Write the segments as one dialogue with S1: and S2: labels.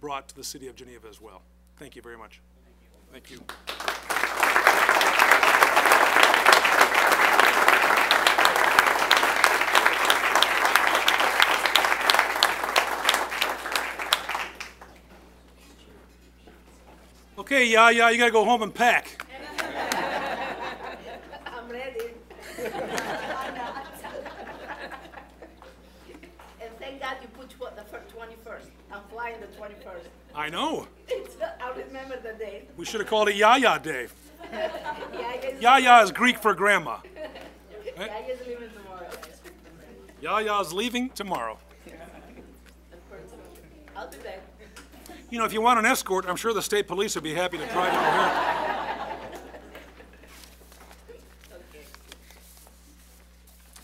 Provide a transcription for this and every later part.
S1: brought to the city of Geneva as well. Thank you very much. Thank you. Okay, yeah, yeah, you gotta go home and pack.
S2: I'm ready. And thank God you put tw- the fir- 21st. I'm flying the 21st.
S1: I know.
S2: It's not- I'll remember the date.
S1: We should have called it Yaya Day.
S2: Yeah, I guess-
S1: Yaya is Greek for grandma.
S2: yeah, I guess leaving tomorrow.
S1: Yaya's leaving tomorrow.
S2: Of course. I'll do that.
S1: You know, if you want an escort, I'm sure the state police would be happy to drive you over here.
S2: Okay.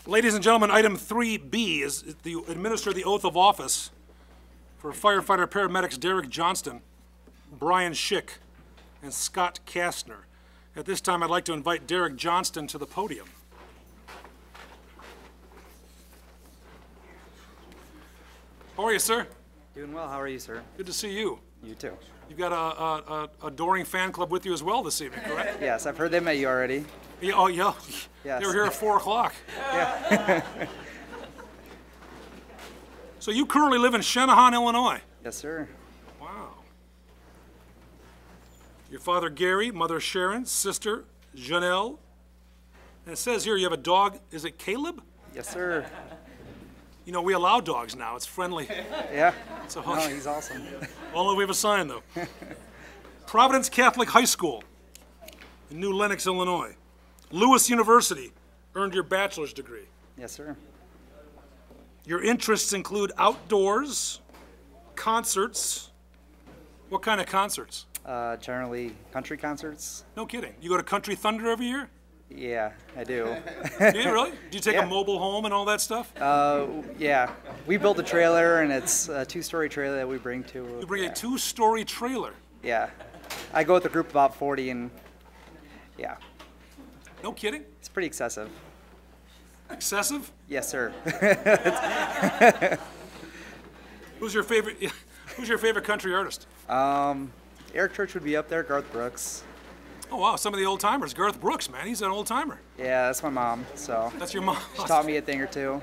S1: Ladies and gentlemen, item 3B is the administer the oath of office for firefighter paramedics Derek Johnston, Brian Schick, and Scott Kastner. At this time, I'd like to invite Derek Johnston to the podium. How are you, sir?
S3: Doing well. How are you, sir?
S1: Good to see you.
S3: You too.
S1: You've got a, a, a adoring fan club with you as well this evening, correct?
S3: Yes, I've heard they met you already.
S1: Yeah, oh, yeah. They
S3: Yes.
S1: were here at 4 o'clock.
S3: Yeah.
S1: So you currently live in Shanahan, Illinois?
S3: yes, sir.
S1: Wow. Your father Gary, mother Sharon, sister Janelle. And it says here you have a dog, is it Caleb?
S3: Yes, sir.
S1: You know, we allow dogs now, it's friendly.
S3: Yeah.
S1: It's a
S3: No,
S1: hug.
S3: he's awesome.
S1: Only we have a sign, though. Providence Catholic High School in New Lenox, Illinois. Lewis University earned your bachelor's degree.
S3: Yes, sir.
S1: Your interests include outdoors, concerts. What kind of concerts?
S3: Uh, generally, country concerts.
S1: No kidding. You go to Country Thunder every year?
S3: Yeah, I do.
S1: Do you really? Do you take
S3: Yeah. Uh,
S1: a mobile home and all that stuff?
S3: yeah, we built a trailer, and it's a two-story trailer that we bring to.
S1: you bring a two-story trailer.
S3: Yeah, I go with a group of about 40, and yeah,
S1: No kidding.
S3: it's pretty excessive.
S1: Excessive.
S3: Yes, sir.
S1: Who's your favorite? Who's your favorite country artist?
S3: Eric Church would be up there. Garth Brooks.
S1: Oh wow, some of the old timers. Garth Brooks, man, he's an old timer.
S3: Yeah, that's my mom. So
S1: That's your mom.
S3: she taught me a thing or two.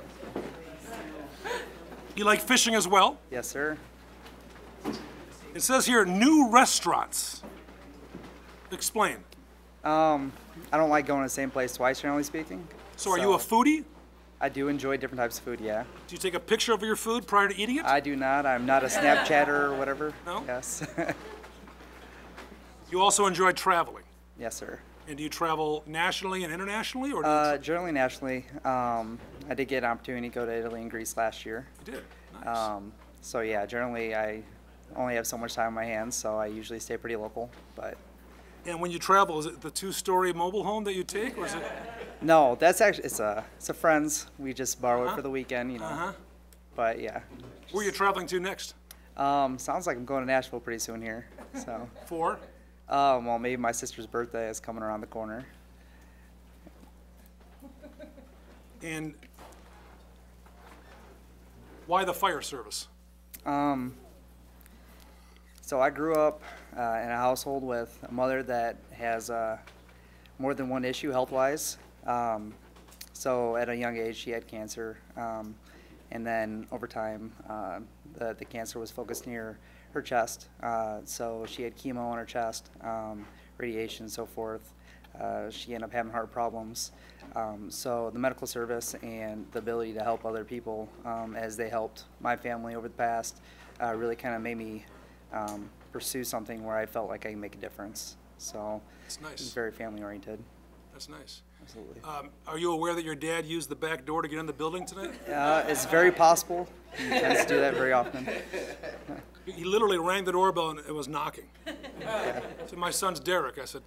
S1: You like fishing as well.
S3: Yes, sir.
S1: It says here new restaurants. Explain.
S3: I don't like going to the same place twice, generally speaking.
S1: So, are you a foodie?
S3: I do enjoy different types of food, yeah.
S1: Do you take a picture of your food prior to eating it?
S3: I do not. I'm not a Snapchatter or whatever.
S1: No?
S3: Yes.
S1: you also enjoy traveling.
S3: yes, sir.
S1: And do you travel nationally and internationally, or do you,
S3: Uh, generally, nationally, um, I did get an opportunity to go to Italy and Greece last year.
S1: you did? Nice.
S3: Um, so, yeah, generally, I only have so much time on my hands, so I usually stay pretty local. But
S1: and when you travel, is it the two-story mobile home that you take, or is it?
S3: no, that's actually, it's a, it's a friend's. We just borrow it for the weekend, you know.
S1: Uh-huh.
S3: But yeah.
S1: Where are you traveling to next?
S3: Um, sounds like I'm going to Nashville pretty soon here. So,
S1: For?
S3: um, well, maybe my sister's birthday is coming around the corner.
S1: And why the fire service?
S3: Um, So I grew up uh, in a household with a mother that has uh, more than one issue health-wise. Um, so at a young age, she had cancer, um, and then over time, uh, the the cancer was focused near her chest. Uh, so she had chemo on her chest, um, radiation, so forth. Uh, she ended up having heart problems. Um, so the medical service and the ability to help other people, um, as they helped my family over the past, uh, really kind of made me um, pursue something where I felt like I can make a difference. So
S1: That's nice.
S3: it's very family oriented.
S1: That's nice.
S3: Absolutely.
S1: Um, are you aware that your dad used the back door to get in the building tonight?
S3: Uh, it's very possible. He tends to do that very often.
S1: He- He literally rang the doorbell and it was knocking. So my son's Derek. I said,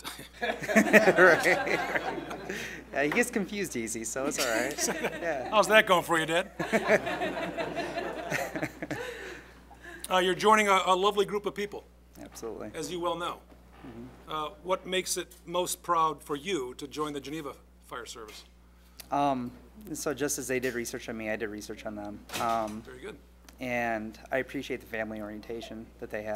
S3: Yeah, he gets confused easy, so it's all right.
S1: "How's that going for you, Dad?" uh, you're joining a, a lovely group of people,
S3: Absolutely.
S1: as you well know. Uh, what makes it most proud for you to join the Geneva Fire Service?
S3: So just as they did research on me, I did research on them. Um,
S1: Very good.
S3: and I appreciate the family orientation that they have.